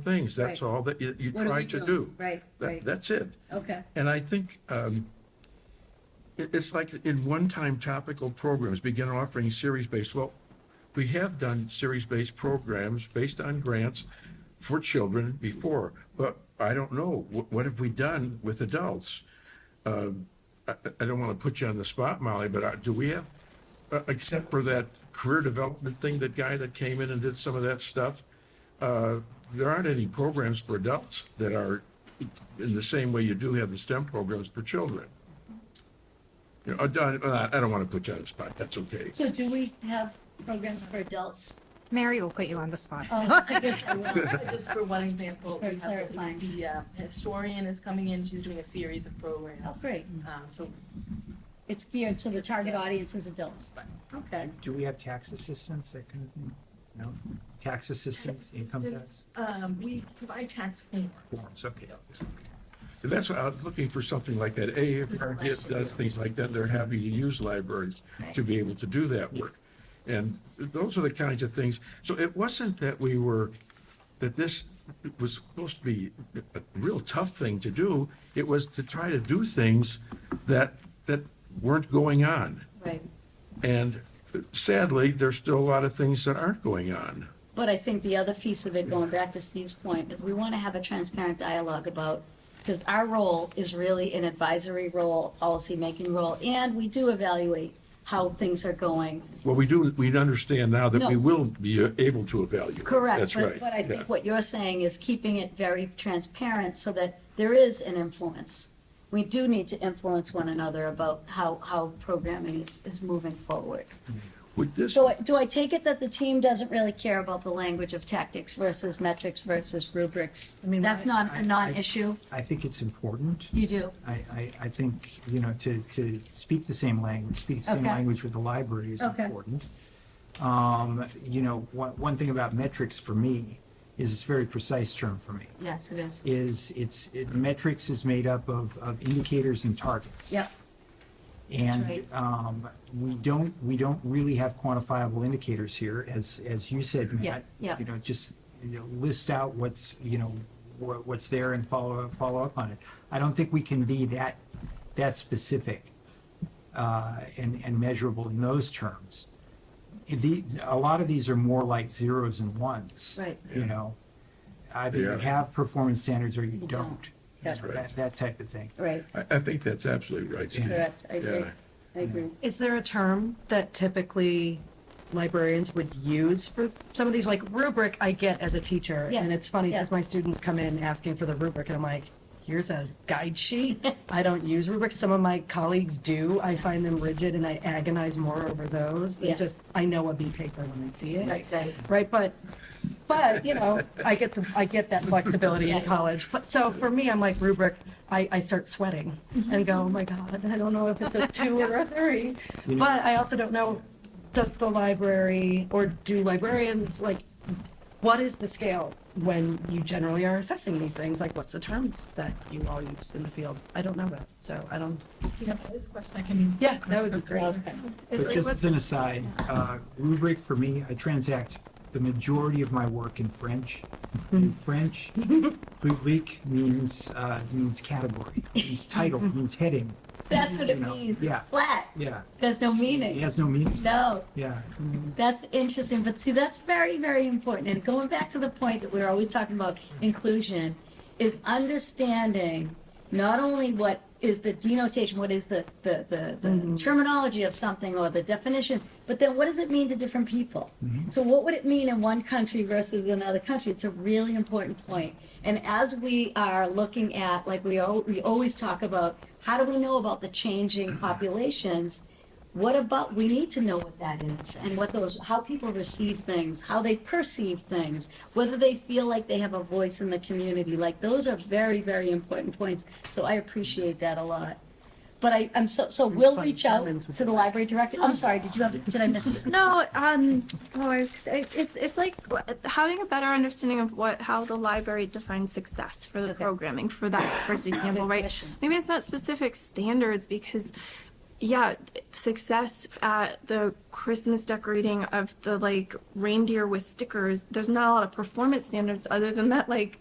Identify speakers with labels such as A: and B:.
A: things, that's
B: Right.
A: all that you, you
B: What are we
A: try to
B: doing?
A: do.
B: Right,
A: That-
B: right.
A: That's it.
B: Okay,
A: And I think um, it- it's like in one-time topical programs, begin offering series-based, well, we have done series-based programs based on grants for children before, but I don't know, what, what have we done with adults? Um, I, I- I don't want to put you on the spot, Molly, but uh, do we have, uh, except for that career development thing, that guy that came in and did some of that stuff? uh, there aren't any programs for adults that are in the same way you do have the STEM programs for children. You know, I don't, I don't want to put you on the spot, that's okay.
B: so do we have programs for adults?
C: Mary will put you on the spot.
B: Oh, I guess I will.
D: Just for one example, we
B: Very
D: have
B: clarifying.
D: the- the uh, historian is coming in, she's doing a series of
B: Oh,
D: programs.
B: great.
D: Um, So
B: It's geared to the target audience is adults. Okay.
E: Do we have tax assistance, that kind of thing? No? Tax assistance, income tax?
D: um, we provide tax forms.
E: Forms, okay.
A: And that's why I was looking for something like that. AARP does things like that, they're happy to use libraries to be able to do that work. And those are the kinds of things, so it wasn't that we were, that this was supposed to be a real tough thing to do. It was to try to do things that, that weren't going on.
B: Right.
A: And sadly, there's still a lot of things that aren't going on.
B: But I think the other piece of it, going back to Steve's point, is we want to have a transparent dialogue about, because our role is really an advisory role, policy-making role, and we do evaluate how things are going.
A: Well, we do, we understand now that we
B: No.
A: will be uh, able to evaluate.
B: Correct.
A: That's
B: but-
A: right.
B: But I
A: yeah.
B: think what you're saying is keeping it very transparent so that there is an influence. We do need to influence one another about how, how programming is, is moving forward.
A: Would this,
B: So I- do I take it that the team doesn't really care about the language of tactics versus metrics versus rubrics?
E: I mean,
B: That's
E: I-
B: not
E: I-
B: a non-issue?
E: I think it's important.
B: You do?
E: I, I, I think, you know, to, to speak the same language, speak the same
B: Okay.
E: language with the library is
B: Okay.
E: important. Um, you know, one, one thing about metrics for me is it's a very precise term for me.
B: Yes, it is.
E: Is it's, it, metrics is made up of, of indicators and targets.
B: Yep,
E: And
B: right.
E: um, we don't, we don't really have quantifiable indicators here, as, as you said,
B: Yeah,
E: Matt.
B: yeah.
E: You know, just you know, list out what's, you know, wha- what's there and follow, up follow up on it. I don't think we can be that, that specific uh, and, and measurable in those terms. The, a lot of these are more like zeros and ones.
B: Right.
E: You know, either you
A: Yeah.
E: have performance standards or you
B: You don't.
E: don't.
B: That's
E: You know,
A: right.
E: that- That type of thing.
B: right,
A: I, I think that's absolutely right, Steve.
B: correct, I agree,
A: Yeah.
B: I agree.
E: Mm-hmm.
F: Is there a term that typically librarians would use for some of these, like rubric I get as a teacher?
B: Yeah,
F: And it's funny because
B: yeah.
F: my students come in asking for the rubric and I'm like, here's a guide sheet. I don't use rubrics. Some of my colleagues do. I find them rigid and I agonize more over those.
B: Yeah.
F: They just, I know a B paper when I see it.
B: Right, right.
F: Right, but, but, you know, I get the, I get that flexibility in college. But so for me, I'm like rubric, I, I start sweating and go, oh my God, I don't know if it's a two or a three.
E: You know-
F: But I also don't know, does the library or do librarians, like, what is the scale when you generally are assessing these things? Like, what's the terms that you all use in the field? I don't know that, so I don't,
D: You know, this question I can.
F: yeah, that would be great.
B: Okay.
F: It's
E: But
F: like,
E: just as
F: what's-
E: an aside, uh, rubric for me, I transact the majority of my work in French.
F: Hmm.
E: In French, rubric means, uh, means category, means title, means heading.
B: That's what it
E: You know,
B: means,
E: yeah.
B: flat,
E: Yeah,
B: there's no
E: it
B: meaning.
E: has no meaning.
B: No,
E: Yeah,
B: That's interesting, but see, that's very, very important. And going back to the point that we're always talking about inclusion, is understanding not only what is the denotation, what is the, the, the, the terminology of something or the definition, but then what does it mean to different people? So, what would it mean in one country versus another country? It's a really important point. And as we are looking at, like we, al- we always talk about, how do we know about the changing populations? what about we need to know what that is and what those how people receive things how they perceive things whether they feel like they have a voice in the community like those are very very important points so i appreciate that a lot but i i'm so so we'll
F: fun.
B: reach out
F: Romans would
B: to
F: do
B: the library director i'm sorry did you have did i miss it
G: No, um, oh, I- it's it's like having a better understanding of what how the library defines success for the
B: Okay.
G: programming for that first example, right?
B: question.
G: Maybe it's not specific standards because yeah, success at the Christmas decorating of the like reindeer with stickers. There's not a lot of performance standards other than that like